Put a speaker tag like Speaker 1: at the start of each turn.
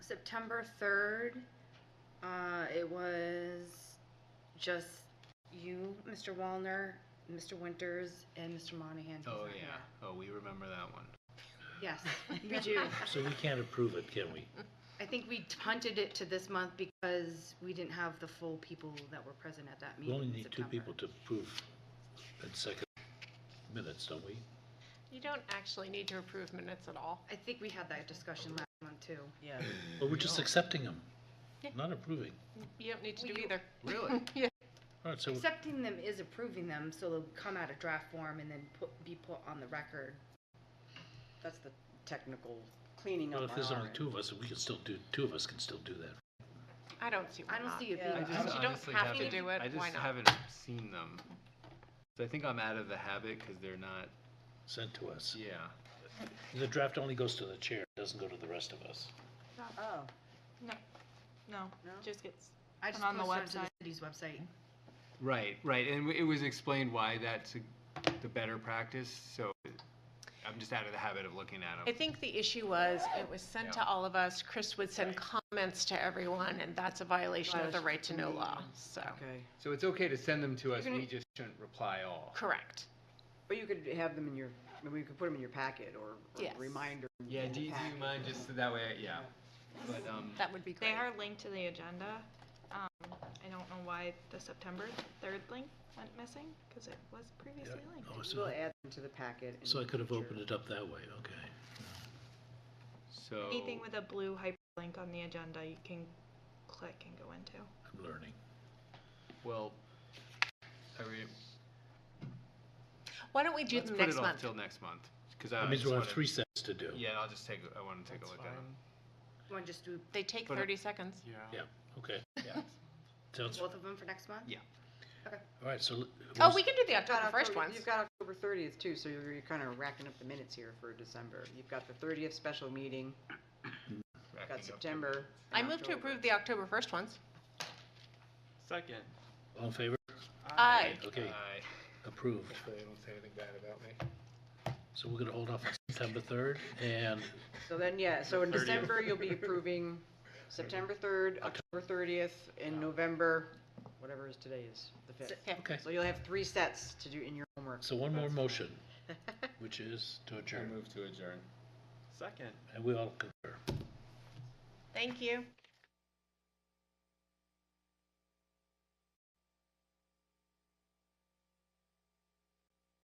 Speaker 1: September 3rd, uh, it was just you, Mr. Wallner, Mr. Winters, and Mr. Monahan. who's
Speaker 2: Oh,
Speaker 1: not
Speaker 2: yeah. Oh, we remember that one.
Speaker 1: here. Yes, we do.
Speaker 3: So we can't approve it, can we?
Speaker 1: I think we punted it to this month because we didn't have the full people that were present at that
Speaker 3: We
Speaker 1: meeting
Speaker 3: only
Speaker 4: Mm-hmm.
Speaker 1: in
Speaker 3: need two
Speaker 1: September.
Speaker 3: people to approve in second minutes, don't we?
Speaker 4: You don't actually need to approve minutes at all.
Speaker 1: I think we had that discussion last month, too.
Speaker 5: Yeah.
Speaker 3: But we're just accepting them,
Speaker 4: Yeah.
Speaker 3: not approving.
Speaker 4: You don't need to
Speaker 1: Well,
Speaker 4: do
Speaker 1: you-
Speaker 4: either.
Speaker 2: Really?
Speaker 4: Yeah.
Speaker 3: All right, so
Speaker 1: Accepting them is approving them, so they'll come out of draft form and then put, be put on the record.
Speaker 5: That's the technical cleaning
Speaker 3: well,
Speaker 5: up
Speaker 3: if
Speaker 5: on
Speaker 3: there's
Speaker 5: our
Speaker 3: only
Speaker 5: end.
Speaker 3: two of us, we can still do, two of us can still do that.
Speaker 4: I don't see why
Speaker 1: I don't
Speaker 4: not.
Speaker 1: see it
Speaker 5: Yeah.
Speaker 1: being.
Speaker 5: I just-
Speaker 4: If you don't
Speaker 2: honestly
Speaker 4: have to
Speaker 2: haven't-
Speaker 4: do it,
Speaker 2: I just
Speaker 4: why not?
Speaker 2: haven't seen them. So I think I'm out of the habit because they're not.
Speaker 3: Sent to us.
Speaker 2: Yeah.
Speaker 3: The draft only goes to the chair, it doesn't go to the rest of us.
Speaker 5: Oh,
Speaker 6: No,
Speaker 5: No?
Speaker 6: just gets,
Speaker 1: I just
Speaker 6: Put on the
Speaker 1: posted to the
Speaker 6: website.
Speaker 1: city's website.
Speaker 2: Right, right. And w- it was explained why that's a, the better practice. So I'm just out of the habit of looking at
Speaker 4: I
Speaker 2: them.
Speaker 4: think the issue was, it was sent to
Speaker 2: Yeah.
Speaker 4: all of us, Chris would send comments to everyone, and that's a violation of the
Speaker 5: Violation
Speaker 4: right to know
Speaker 5: of the
Speaker 4: law, so,
Speaker 5: okay.
Speaker 2: So it's okay to send them to us. We just shouldn't reply all.
Speaker 4: correct.
Speaker 5: But you could have them in your, I mean, you could put them in your packet or or
Speaker 4: Yes.
Speaker 5: reminder. in
Speaker 2: Yeah,
Speaker 5: the
Speaker 2: do, do you
Speaker 5: packet.
Speaker 2: mind just so that way? I- Yeah. But um,
Speaker 4: That would be
Speaker 6: they
Speaker 4: great.
Speaker 6: are linked to the agenda. Um, I don't know why the September 3rd link went missing, because it was previously linked.
Speaker 3: Oh,
Speaker 5: We'll
Speaker 3: so,
Speaker 5: add them to the packet. in
Speaker 3: so I could have
Speaker 5: the
Speaker 3: opened it up that way, okay.
Speaker 2: so
Speaker 6: Anything
Speaker 4: Oh.
Speaker 6: with a blue hyperlink on the agenda, you can click and go into.
Speaker 3: I'm learning.
Speaker 2: well, I re-
Speaker 4: Why don't we do
Speaker 2: let's
Speaker 4: them
Speaker 2: put
Speaker 4: next
Speaker 2: it off
Speaker 4: month?
Speaker 2: till next month because
Speaker 3: That means we'll have three sets to do.
Speaker 2: Yeah, I'll just take. a- I want to take a look at them.
Speaker 1: You want to just do
Speaker 4: They take
Speaker 2: Put it-
Speaker 4: 30 seconds.
Speaker 2: Yeah.
Speaker 3: Yeah, okay.
Speaker 2: Yeah.
Speaker 3: Sounds, all
Speaker 1: both of them for next month?
Speaker 2: Yeah.
Speaker 3: right, so. l-
Speaker 4: Oh,
Speaker 3: who's-
Speaker 4: we can do the
Speaker 5: You've got
Speaker 4: October 1st
Speaker 5: October-
Speaker 4: ones.
Speaker 5: You've got October thirtieth too, so you're, you're kind of racking up the minutes here for December. You've got the thirtieth special meeting, you've
Speaker 2: Racking up
Speaker 5: got
Speaker 2: to-
Speaker 5: September.
Speaker 4: I
Speaker 5: and
Speaker 4: move to
Speaker 5: October.
Speaker 4: approve the October 1st ones.
Speaker 7: Second.
Speaker 3: All in favor?
Speaker 4: Aye.
Speaker 3: Okay,
Speaker 2: Aye.
Speaker 3: approved.
Speaker 7: Hopefully they don't say anything bad about me.
Speaker 3: So we're gonna hold off on September third and
Speaker 5: So then, yeah, so in
Speaker 7: 30th.
Speaker 5: December, you'll be approving September third, October thirtieth, and November, whatever is today is, the fifth.
Speaker 3: Okay.
Speaker 5: So you'll have three sets to do in your homework.
Speaker 3: So one more
Speaker 7: That's
Speaker 3: motion, which is to
Speaker 2: I
Speaker 3: adjourn,
Speaker 2: move to adjourn.
Speaker 7: Second.
Speaker 3: and we all concur.
Speaker 4: Thank you.